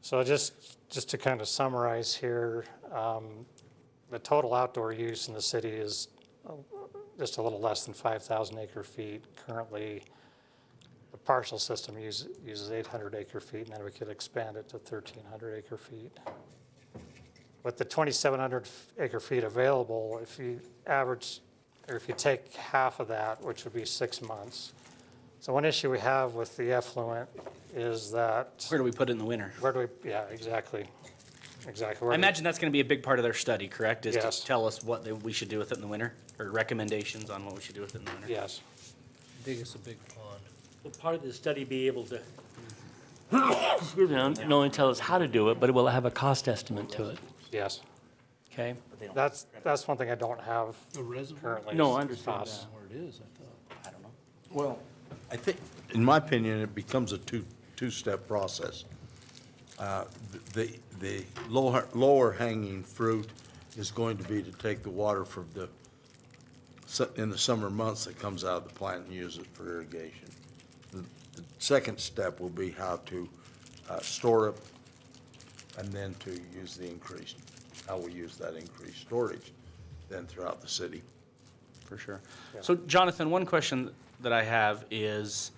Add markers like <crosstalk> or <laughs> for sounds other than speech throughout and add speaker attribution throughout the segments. Speaker 1: So just, just to kind of summarize here, um, the total outdoor use in the city is uh, just a little less than 5,000 acre feet. Currently, the partial system use- uses 800 acre feet, and then we could expand it to 1,300 acre feet. With the 2,700 acre feet available, if you average, or if you take half of that, which would be six months. So one issue we have with the effluent is that.
Speaker 2: Where do we put it in the winter?
Speaker 1: Where do we, yeah, exactly, exactly. Where
Speaker 2: I
Speaker 1: do-
Speaker 2: imagine that's going to be a big part of their study, correct? Is
Speaker 1: Yes.
Speaker 2: to tell us what they- we should do with it in the winter or recommendations on what we should do with it in the winter.
Speaker 1: Yes,
Speaker 3: Dig us a big pond.
Speaker 4: Will part of the study be able to, excuse me, not only tell us how to do it, but it will have a cost estimate to it,
Speaker 1: yes.
Speaker 4: okay?
Speaker 1: That's, that's one thing I don't have
Speaker 3: The reservoir?
Speaker 1: currently.
Speaker 4: No,
Speaker 1: is
Speaker 4: I understand
Speaker 1: costs.
Speaker 3: Where it is, I thought.
Speaker 2: I don't know.
Speaker 5: Well, I think, in my opinion, it becomes a two, two-step process. Uh, The, the lower, lower hanging fruit is going to be to take the water from the, su- in the summer months that comes out of the plant and use it for irrigation. The the second step will be how to uh, store it and then to use the increased, how we use that increased storage then throughout the city.
Speaker 2: For sure. So Jonathan, one question that I have is,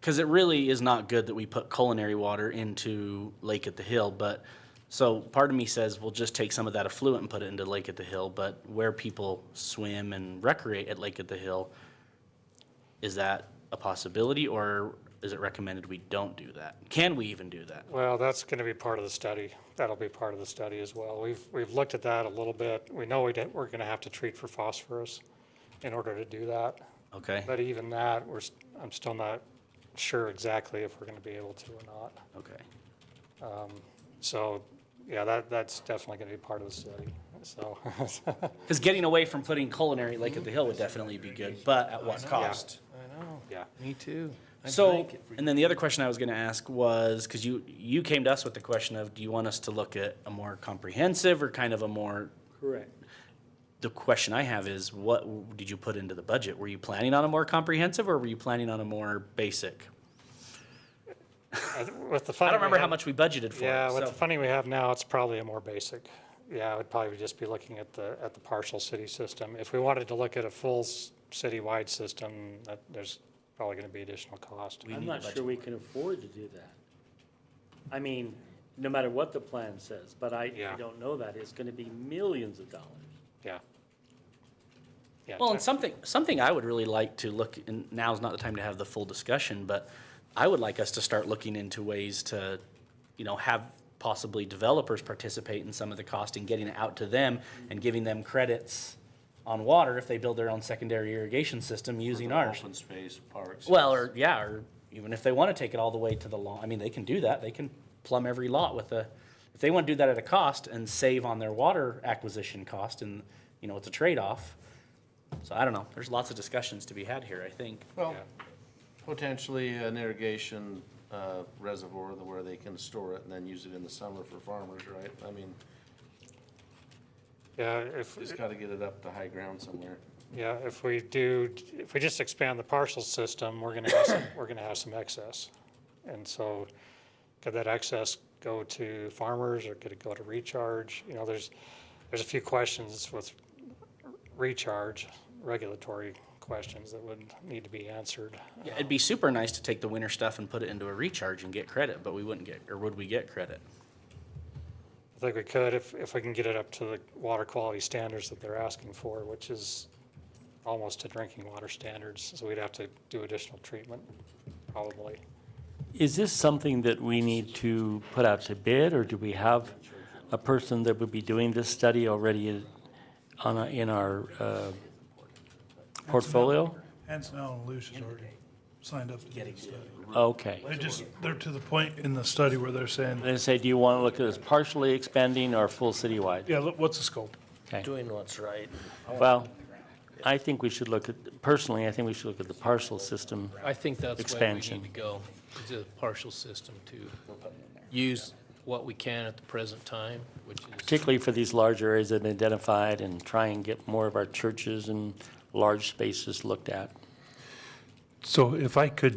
Speaker 2: because it really is not good that we put culinary water into Lake at the Hill, but, so part of me says, we'll just take some of that affluent and put it into Lake at the Hill, but where people swim and recreate at Lake at the Hill, is that a possibility, or is it recommended we don't do that? Can we even do that?
Speaker 1: Well, that's going to be part of the study. That'll be part of the study as well. We've, we've looked at that a little bit. We know we didn't, we're going to have to treat for phosphorus in order to do that.
Speaker 2: Okay,
Speaker 1: But even that, we're, s- I'm still not sure exactly if we're going to be able to or not.
Speaker 2: okay.
Speaker 1: So, yeah, that, that's definitely going to be part of the study, so. <laughs>
Speaker 2: Because getting away from putting culinary at Lake at the Hill would definitely be good, but at what cost?
Speaker 3: I know.
Speaker 1: Yeah.
Speaker 3: Me too. I
Speaker 2: So,
Speaker 3: drank it for
Speaker 2: and then the other question I was going to ask was, because you, you came to us with the question of, do you want us to look at a more comprehensive or kind of a more,
Speaker 4: Correct.
Speaker 2: the question I have is, what w- did you put into the budget? Were you planning on a more comprehensive or were you planning on a more basic?
Speaker 1: I th- With the funding
Speaker 2: I don't
Speaker 1: we
Speaker 2: remember how
Speaker 1: have-
Speaker 2: much we budgeted for
Speaker 1: Yeah,
Speaker 2: it,
Speaker 1: with the
Speaker 2: so.
Speaker 1: funding we have now, it's probably a more basic. Yeah, I would probably just be looking at the, at the partial city system. If we wanted to look at a full s- citywide system, that, there's probably gonna be additional cost.
Speaker 4: I'm not sure we can afford to do that. I mean, no matter what the plan says, but I, I
Speaker 1: Yeah.
Speaker 4: don't know that. It's gonna be millions of dollars.
Speaker 1: Yeah. Yeah,
Speaker 2: Well, and
Speaker 1: te-
Speaker 2: something, something I would really like to look, and now's not the time to have the full discussion, but I would like us to start looking into ways to, you know, have possibly developers participate in some of the cost and getting it out to them and giving them credits on water if they build their own secondary irrigation system using
Speaker 3: Mm-hmm.
Speaker 2: ours.
Speaker 6: Open space, parks.
Speaker 2: Well, or, yeah, or even if they want to take it all the way to the lawn, I mean, they can do that. They can plumb every lot with a, if they want to do that at a cost and save on their water acquisition cost and, you know, it's a trade-off. So I don't know. There's lots of discussions to be had here, I think.
Speaker 3: Well, potentially an irrigation uh, reservoir where they can store it and then use it in the summer for farmers, right? I mean,
Speaker 1: Yeah, if,
Speaker 3: just gotta get it up to high ground somewhere.
Speaker 1: yeah, if we do, if we just expand the partial system, we're gonna have, some- we're gonna have some excess. And so could that excess go to farmers or could it go to recharge? You know, there's, there's a few questions with recharge, regulatory questions that would need to be answered.
Speaker 2: Yeah, It'd be super nice to take the winter stuff and put it into a recharge and get credit, but we wouldn't get, or would we get credit?
Speaker 1: I think we could if, if we can get it up to the water quality standards that they're asking for, which is almost to drinking water standards. So we'd have to do additional treatment, probably.
Speaker 4: Is this something that we need to put out to bid, or do we have a person that would be doing this study already on, a- in our uh, portfolio?
Speaker 7: Hanson Allen and Luce has already signed up to do the study.
Speaker 4: Okay.
Speaker 7: They just, they're to the point in the study where they're saying,
Speaker 4: They say, do you want to look at this partially expanding or full citywide?
Speaker 7: yeah, look, what's the scope?
Speaker 4: Okay.
Speaker 3: Doing what's right.
Speaker 4: Well, I think we should look at, personally, I think we should look at the parcel system.
Speaker 8: I think that's where we need to
Speaker 4: Expansion.
Speaker 8: go, is a partial system to use what we can at the present time, which is,
Speaker 4: particularly for these large areas that have been identified and try and get more of our churches and large spaces looked at.
Speaker 7: So if I could